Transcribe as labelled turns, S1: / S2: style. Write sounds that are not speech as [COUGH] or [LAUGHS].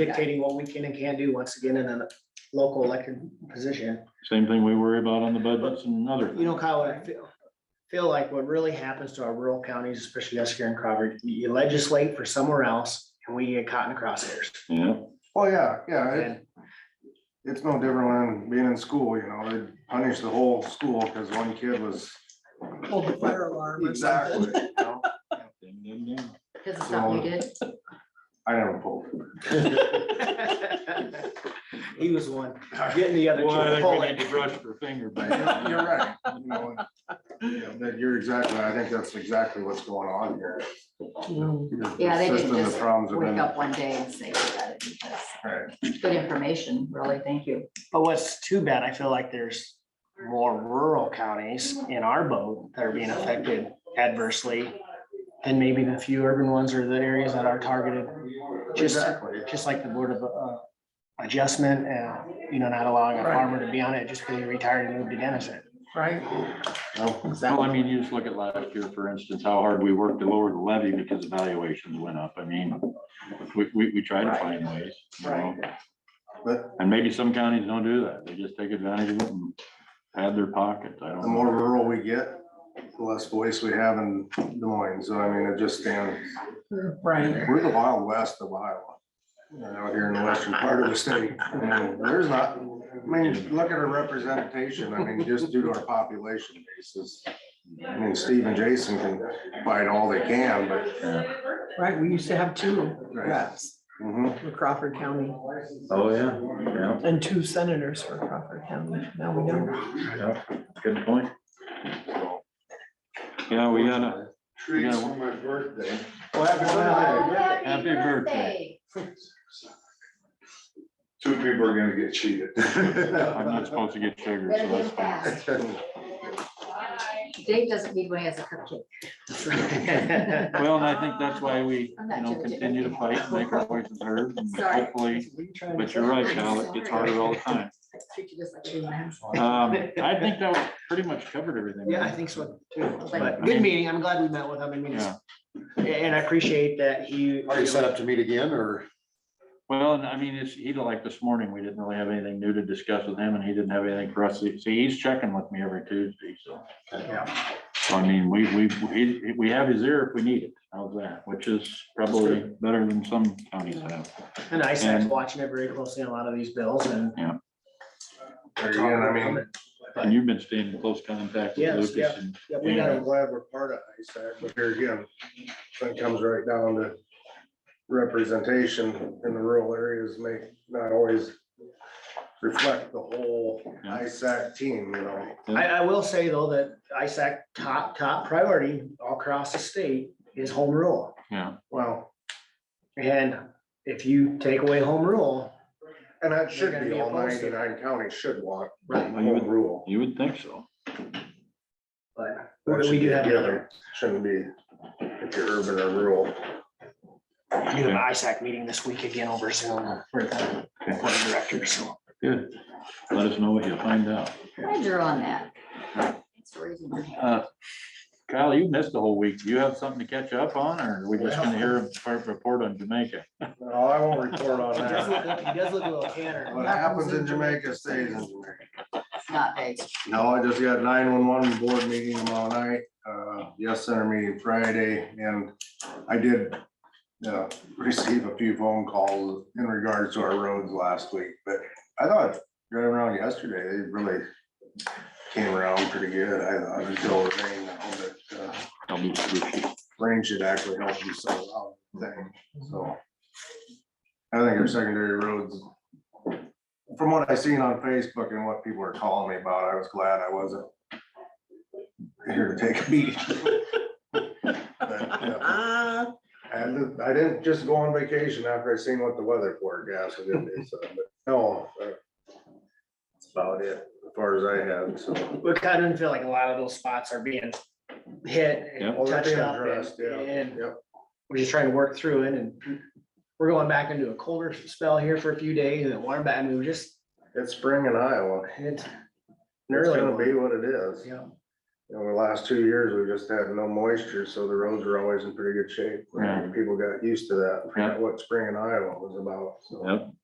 S1: dictating what we can and can't do once again in a local elected position.
S2: Same thing we worry about on the budgets and other.
S1: You know, Kyle, what I feel, feel like what really happens to our rural counties, especially us here in Crawford, you legislate for somewhere else and we get caught in the crosshairs.
S2: Yeah,
S3: Oh, yeah, yeah, it,
S1: And
S3: it's no different when being in school, you know, they punish the whole school because one kid was.
S4: Pulled the fire alarm or
S3: Exactly.
S4: something.
S3: you know?
S2: Ding, ding, ding.
S5: Because it's something you did.
S3: I never pulled.
S1: [LAUGHS] He was one, getting the other. two
S2: Boy, I
S1: to
S2: think we
S1: pull
S2: need
S1: it.
S2: to brush for
S3: [LAUGHS]
S2: finger
S3: But
S2: bang.
S3: You're right. you know, you know, That you're exactly, I think that's exactly what's going on here.
S4: Mm.
S5: Yeah, they didn't
S3: System, the
S5: just
S3: problems have
S5: Wake
S3: been-
S5: up one day and say, we got it because
S3: Right.
S5: it's good information, really. Thank you.
S1: But what's too bad, I feel like there's more rural counties in our boat that are being affected adversely than maybe the few urban ones or the areas that are targeted. Just,
S3: Exactly.
S1: just like the board of uh, adjustment, uh, you know, not allowing a
S4: Right.
S1: farmer to be on it just because he retired and moved to Dennison. [LAUGHS]
S4: Right,
S3: No,
S2: Well, I mean, you just look at last year, for instance, how hard we worked to lower the levy because evaluations went up. I mean, we, we, we try to find ways, you know?
S3: But-
S2: And maybe some counties don't do that. They just take advantage of it and pad their pockets. I
S3: The
S2: don't
S3: more
S2: know.
S3: rural we get, the less voice we have in Des Moines. So I mean, it just stands.
S4: right.
S3: We're the wild west of Iowa. you know, Out here in the western part of the state, and there's not, I mean, look at our representation, I mean, just due to our population basis. I mean, Steve and Jason can fight all they can, but.
S4: Right, we used to have two
S3: Right.
S4: reps
S3: mhm.
S4: for Crawford County
S6: Oh, yeah, yeah,
S4: and two senators for Crawford County. Now we don't.
S6: yeah, good point.
S2: Yeah, we gotta, we
S7: Trees
S2: gotta,
S7: for my birthday.
S3: Well, happy
S5: Oh,
S3: birthday.
S2: Happy birthday.
S7: Two people are gonna get
S3: [LAUGHS]
S7: cheated.
S2: I'm not supposed to get sugar,
S5: Better
S2: so
S5: get
S2: that's
S5: it
S2: fine.
S5: fast. Dave doesn't need one, he has a cupcake.
S2: Well, and I think that's why we,
S5: I'm not
S2: you know,
S5: judging.
S2: continue to fight and make our voices heard and
S5: [LAUGHS] Sorry.
S2: hopefully, but you're right, Cal, it gets harder all the time.
S5: Treat you just like a man.
S2: Um, I think that was pretty much covered everything.
S1: Yeah, I think so too.
S2: I
S1: But
S2: mean-
S1: good meeting. I'm glad we met with him. I mean, it's- and I appreciate that he.
S7: Are you set up to meet again or?
S2: Well, and I mean, it's, he, like this morning, we didn't really have anything new to discuss with him and he didn't have anything for us. See, he's checking with me every Tuesday, so.
S1: Yeah.
S2: I mean, we, we, he- we have his ear if we need it. How's that? Which is probably better than some counties have.
S1: And I was
S2: And-
S1: watching it very closely on a lot of these bills and.
S3: There Again, I mean,
S2: And you've been staying in close contact with
S1: Yes,
S2: Lucas
S1: yeah.
S2: and
S1: Yeah, we
S3: I'm
S1: gotta,
S3: glad we're part of ISAC, but here again, it comes right down to representation in the rural areas may not always reflect the whole
S2: Yeah.
S3: ISAC team, you know.
S1: I, I will say though that ISAC top, top priority all across the state is home rule.
S2: yeah.
S3: Well,
S1: And if you take away home rule,
S3: and that should
S1: They're
S3: be
S1: gonna be
S3: all
S1: opposed to it.
S3: ninety-nine counties should want
S1: Right.
S3: home rule.
S2: You would think so.
S1: but
S3: That should
S1: we do
S3: be
S1: have another,
S3: given. Shouldn't be if you're urban or rural.
S1: we do have an ISAC meeting this week again over Zoom for the board of directors. so.
S2: Good. Let us know what you find out.
S5: I drew on that. Thanks for raising my hand.
S2: Uh, Kyle, you missed the whole week. Do you have something to catch up on or are we just gonna hear a part- report on Jamaica?
S3: No, I won't report on
S1: He does
S3: that.
S1: look- he does look a little tanner.
S3: What happens in Jamaica stays in Jamaica.
S5: It's not big.
S3: No, I just got nine one one board meeting tomorrow night, uh, yes, center meeting Friday, and I did. Uh, [LAUGHS] receive a few phone calls in regards to our roads last week, but I thought driving around yesterday, they really. Came around pretty good, I thought it was still raining, I hope that, uh,
S2: Tell me.
S3: rain should actually help you sell out thing, so. I think our secondary roads. From what I seen on Facebook and what people are calling me about, I was glad I wasn't. Here to take a beat. But, yeah,
S4: Ah,
S3: And I didn't just go on vacation after I seen what the weather forecast was gonna be, so, but no. uh, That's about it, as far as I have, so.
S1: We kind of feel like a lot of those spots are being hit
S2: Yep.
S1: and
S3: Well, they're
S1: touched
S3: being
S1: up
S3: addressed,
S1: and,
S3: yeah,
S1: and
S3: yep.
S1: we're just trying to work through it and we're going back into a colder spell here for a few days and it warm back and we were just,
S3: It's spring in Iowa.
S1: it's. an
S3: It's
S1: early
S3: gonna be
S1: one.
S3: what it is.
S1: Yeah,
S3: over the last two years, we just had no moisture, so the roads were always in pretty good shape.
S2: Yeah.
S3: People got used to that,
S2: Yeah.
S3: what spring in Iowa was about, so.
S2: Yep.